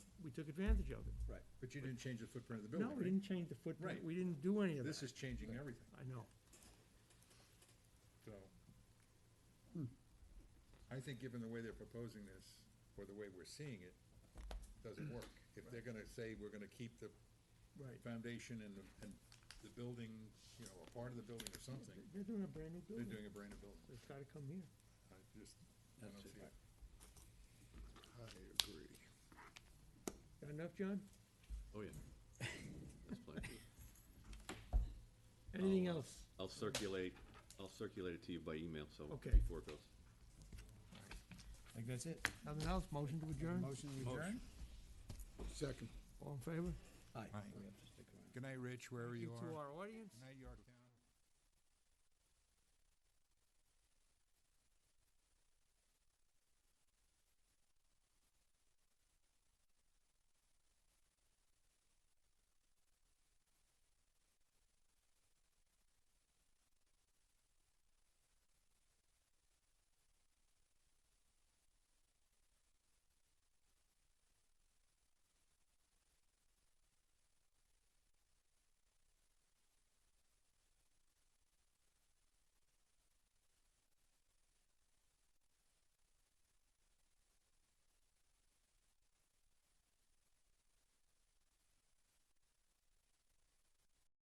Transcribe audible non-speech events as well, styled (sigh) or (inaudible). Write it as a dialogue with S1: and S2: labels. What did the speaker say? S1: we took advantage of it.
S2: Right, but you didn't change the footprint of the
S1: No,
S2: building,
S1: we
S2: right?
S1: didn't change the footprint,
S2: Right.
S1: we didn't do any of
S2: This
S1: that.
S2: is changing everything,
S1: I know.
S2: so.
S1: Hmm.
S2: I think given the way they're proposing this, or the way we're seeing it, doesn't
S1: (clears throat)
S2: work. If they're gonna say, we're gonna keep the
S1: Right.
S2: foundation and the, and the building, you know, a part of the building or something,
S1: They're doing a brand new
S2: they're
S1: building,
S2: doing a brand new building.
S1: they've gotta come here.
S2: I just, I don't see it.
S3: I agree.
S1: Got enough, John?
S4: Oh, yeah. That's plenty.
S1: Anything
S4: I'll, uh,
S1: else?
S4: I'll circulate, I'll circulate it to you by email, so.
S1: Okay.
S4: Before it goes.
S5: I think that's it.
S1: Nothing else, motion to adjourn,
S5: Motion to adjourn?
S3: Second.
S1: all in favor?
S5: Aye.
S2: Good night, Rich, wherever
S1: Thank
S2: you
S1: To
S2: are.
S1: our audience?
S2: Good night, Yorktown.